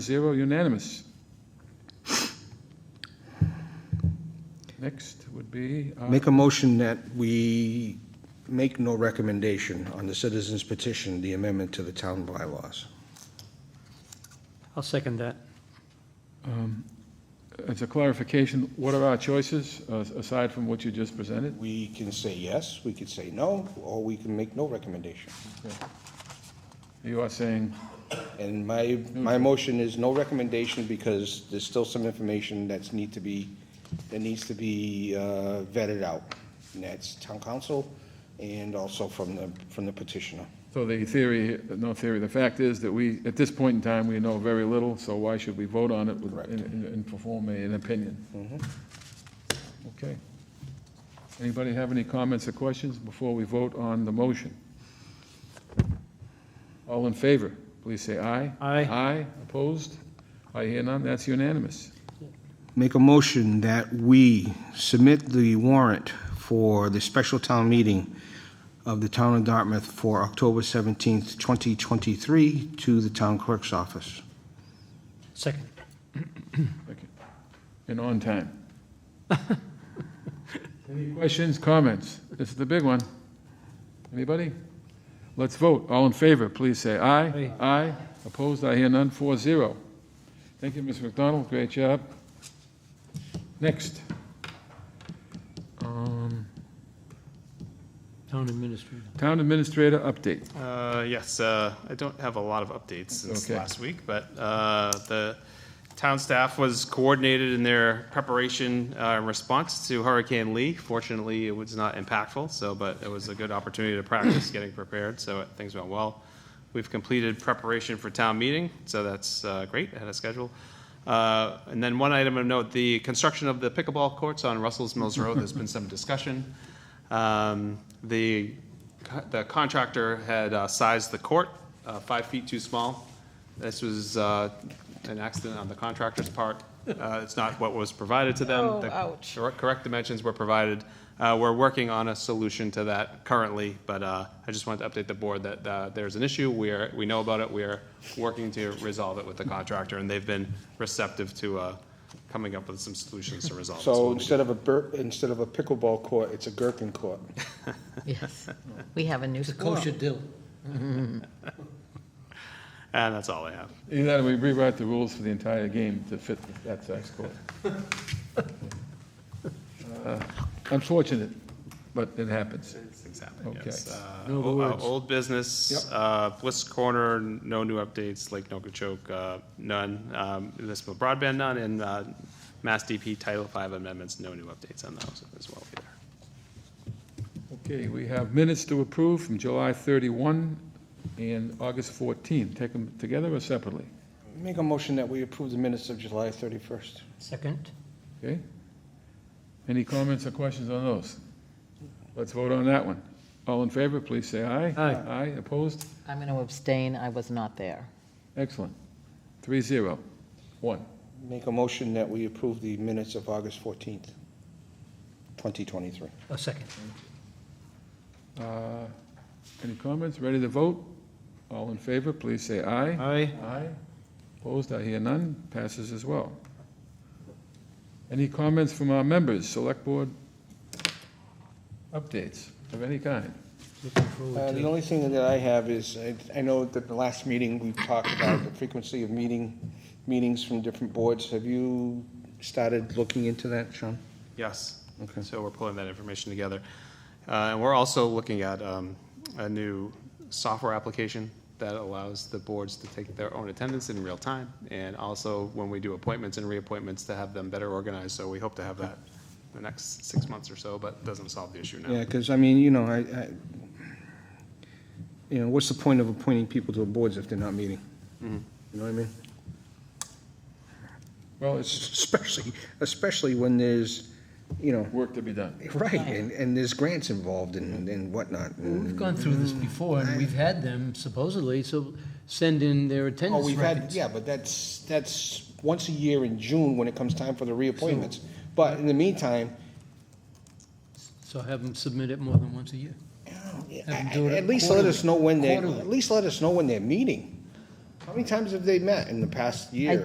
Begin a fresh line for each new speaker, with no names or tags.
Zero unanimous. Next would be, uh,
Make a motion that we make no recommendation on the citizens petition, the amendment to the town bylaws.
I'll second that.
as a clarification, what are our choices, uh, aside from what you just presented?
We can say yes, we could say no, or we can make no recommendation.
You are saying,
And my, my motion is no recommendation because there's still some information that's need to be, that needs to be uh, vetted out. And that's town council and also from the, from the petitioner.
so the theory, no theory, the fact is that we, at this point in time, we know very little, so why should we vote on it with-
Correct.
and- and and perform a- an opinion? Okay. Anybody have any comments or questions before we vote on the motion? All in favor, please say aye.
Aye.
Aye, opposed? I hear none, that's unanimous.
Make a motion that we submit the warrant for the special town meeting of the town of Dartmouth for October 17th, 2023, to the town clerk's office.
Second.
Thank you. And on time. Any questions, comments? This is the big one. Anybody? Let's vote. All in favor, please say aye.
Aye.
Aye. Opposed, I hear none, four zero. Thank you, Mr. McDonald, great job. Next. Um,
Town administrator.
Town Administrator update.
Uh, Yes, uh, I don't have a lot of updates since
Okay.
last week, but uh, the town staff was coordinated in their preparation uh, in response to Hurricane Lee. Fortunately, it was not impactful, so, but it was a good opportunity to practice getting prepared, so things went well. We've completed preparation for town meeting, so that's uh, great, ahead of schedule. Uh, And then one item of note, the construction of the pickleball courts on Russell's Mills Road, there's been some discussion. Um, The, the contractor had uh, sized the court uh, five feet too small. This was uh, an accident on the contractor's part. Uh, It's not what was provided to them.
Oh,
The
ouch.
cor- Correct dimensions were provided. Uh, We're working on a solution to that currently, but uh, I just wanted to update the board that uh, there's an issue. We are, we know about it. We are working to resolve it with the contractor, and they've been receptive to uh, coming up with some solutions to resolve. it.
So
we'll be
instead of a bur, instead of a pickleball court, it's a gherkin court.
Yes, we have a new score.
deal.
And that's all I have.
Either that or we rewrite the rules for the entire game to fit that size court. Uh, Unfortunate, but it happens.
Things happen,
Okay.
yes. Uh,
No other
o- uh,
words.
Old business, uh, Bliss Corner, no new updates, Lake Nokichoke, uh, none. Um, Municipal broadband, none, and uh, Mass DP Title V amendments, no new updates on those as well either.
Okay, we have minutes to approve from July 31 and August 14. Take them together or separately?
Make a motion that we approve the minutes of July 31st.
Second.
Okay? Any comments or questions on those? Let's vote on that one. All in favor, please say aye.
Aye.
Aye, opposed?
I'm going to abstain, I was not there.
Excellent. Three zero. One.
Make a motion that we approve the minutes of August 14th, 2023.
A Oh, second.
Uh, Any comments? Ready to vote? All in favor, please say aye.
Aye.
Aye. Opposed, I hear none. Passes as well. Any comments from our members? Select Board updates of any kind?
Looking forward
Uh,
to
The only thing that I have is, I- I know that the last meeting, we talked about the frequency of meeting, meetings from different boards. Have you started looking into that, Sean?
Yes.
Okay.
So we're pulling that information together. Uh, And we're also looking at um, a new software application that allows the boards to take their own attendance in real time, and also when we do appointments and reappointments, to have them better organized. So we hope to have that in the next six months or so, but doesn't solve the issue now.
Yeah, because, I mean, you know, I, I- you know, what's the point of appointing people to boards if they're not meeting? You know what I mean?
Well, it's
Especially, especially when there's, you know,
work to be done.
right, and, and there's grants involved and and whatnot.
We've gone through this before, and we've had them supposedly, so send in their
Oh,
attendance
we've had,
records.
yeah, but that's, that's once a year in June when it comes time for the reappointments. But in the meantime,
So have them submit it more than once a year.
I-
Have them do it
at least let us know when they're,
quarterly.
at least let us know when they're meeting. How many times have they met in the past year?